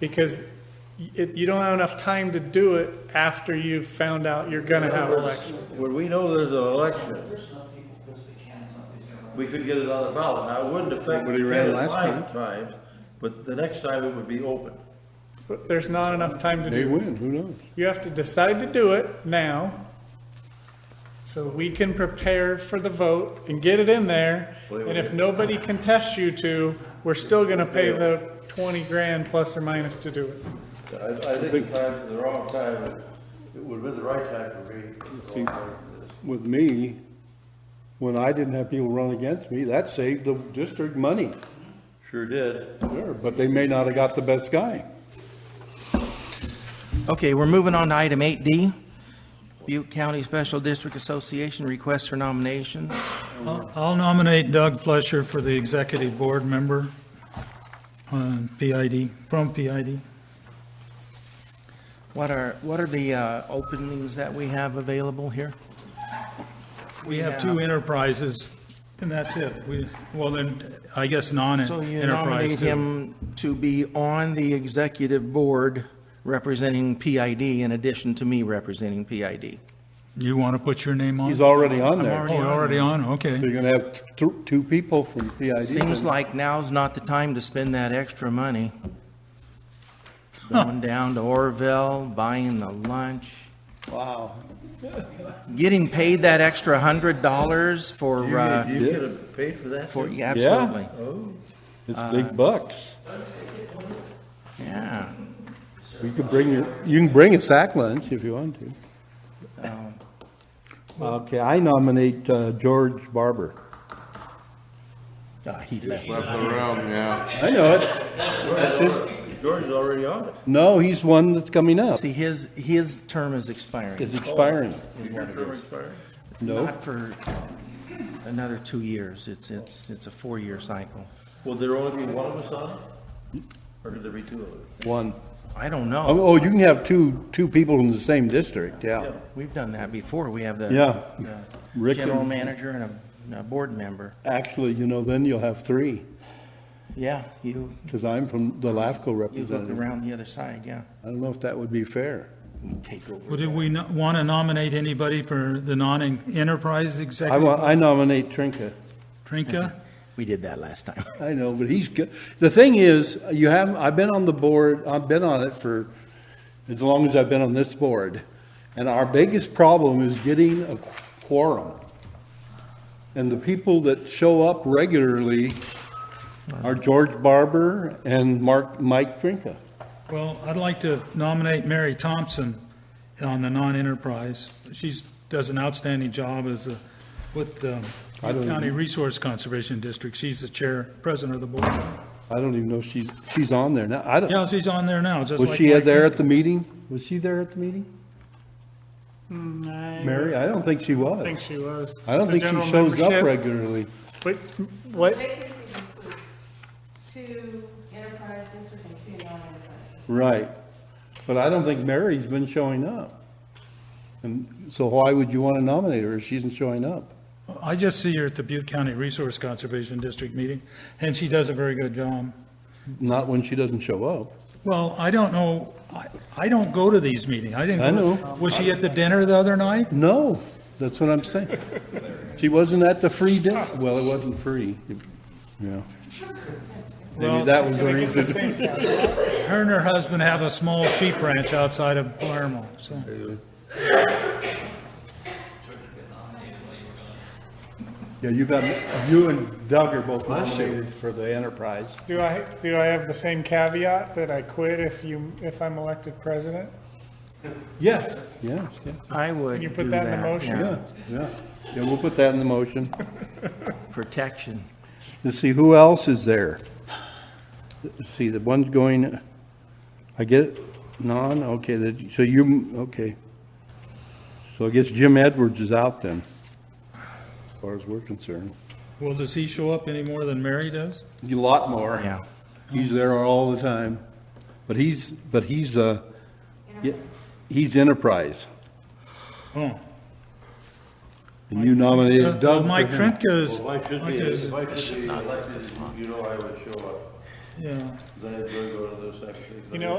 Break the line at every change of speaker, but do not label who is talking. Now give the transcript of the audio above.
because it, you don't have enough time to do it after you've found out you're gonna have election.
When we know there's an election, we could get it on the ballot. Now, it wouldn't affect
Nobody ran
Ken and
last
my
time.
times, but the next time it would be open.
But There's not enough time to
They
do,
win, who knows?
you have to decide to do it now, so we can prepare for the vote and get it in there, and if nobody contests you to, we're still gonna pay the twenty grand plus or minus to do it.
I, I think the time, the wrong time, it would have been the right time for me. to go for this.
With me, when I didn't have people run against me, that saved the district money.
Sure did.
Sure, but they may not have got the best guy.
Okay, we're moving on to item 8D. Butte County Special District Association requests for nominations.
I'll I'll nominate Doug Fletcher for the executive board member, uh, PID, from PID.
What are, what are the uh, openings that we have available here?
We have two enterprises, and that's it. We, well, then, I guess
So you nominate
non-enterprise too.
him to be on the executive board representing PID in addition to me representing PID.
You want to put your name on?
He's already on
Oh,
there.
you're already on,
So
okay.
you're gonna have t- two, two people from PID.
Seems like now's not the time to spend that extra money. Going down to Orville, buying the lunch. Wow. Getting paid that extra hundred dollars for,
You get,
uh,
you get a- paid for that?
for, yeah,
Yeah.
absolutely.
It's big bucks.
Yeah.
You can bring your, you can bring a sack lunch if you want to. Um, Okay, I nominate, uh, George Barber.
Ah, he left.
Left the room, yeah.
I know it. That's his,
George is already on it.
no, he's one that's coming up.
See, his, his term is expiring.
It's expiring.
Your term expired.
No,
Not for another two years. It's, it's, it's a four-year cycle.
Will there only be one of us on it? Or could there be two of us?
one.
I don't
Oh,
know.
oh, you can have two, two people from the same district, yeah.
We've done that before. We have the
Yeah.
the
Rick and-
general manager and a, a board member.
Actually, you know, then you'll have three,
Yeah, you,
because I'm from the LAFCO
you look
representative.
around the other side, yeah.
I don't know if that would be fair.
You take over.
Well, do we want to nominate anybody for the non-enterprise
I
executive?
wa- I nominate Trinka.
Trinka?
We did that last time.
I know, but he's good. The thing is, you have, I've been on the board, I've been on it for as long as I've been on this board. And our biggest problem is getting a quorum. And the people that show up regularly are George Barber and Mark, Mike Trinka.
Well, I'd like to nominate Mary Thompson on the non-enterprise. She's, does an outstanding job as a, with the
don't
County Resource Conservation District. She's the chair, president of the board.
I don't even know if she's, she's on there now. I don't,
Yeah, she's on there now, just like.
was she
Mike.
there at the meeting? Was she there at the meeting? Mary, I don't think she
I think
was.
she was.
I don't
The
think she
general
shows up
membership-
regularly.
Wait, what?
Vacancies include two enterprise districts and two non-enterprise.
Right. But I don't think Mary's been showing up. And so why would you want to nominate her if she's not showing up?
I just see her at the Butte County Resource Conservation District meeting, and she does a very good job.
Not when she doesn't show up.
Well, I don't know, I, I don't go to these meetings. I didn't.
I
go-
know.
Was she at the dinner the other night?
No, that's what I'm saying. She wasn't at the free dinner. Well, it wasn't free. Yeah. Maybe
Well,
that was the
I think it's the
reason.
same thing.
Her and her husband have a small sheep ranch outside of Palermo, so.
Yeah, you got, you and Doug are both nominated for the enterprise.
Do I, do I have the same caveat that I quit if you, if I'm elected president?
Yes, yes, yes,
I would
Can you put
do
that in the motion?
yeah.
yeah, yeah. Yeah, we'll put that in the motion.
Protection.
Let's see, who else is there? Let's see, the one's going, I get, non, okay, that- so you, okay. So I guess Jim Edwards is out then, as far as we're concerned.
Well, does he show up any more than Mary does?
A lot more.
Yeah.
He's there all the time. But he's, but he's, uh, yeah, he's enterprise.
Oh. Uh,
And you nominated Doug
Well,
for
Mike
him.
Trentka's,
If I could
Mike
be,
is-
if I could be elected, you know I would show up.
yeah.
They had to go to this actually.
You know,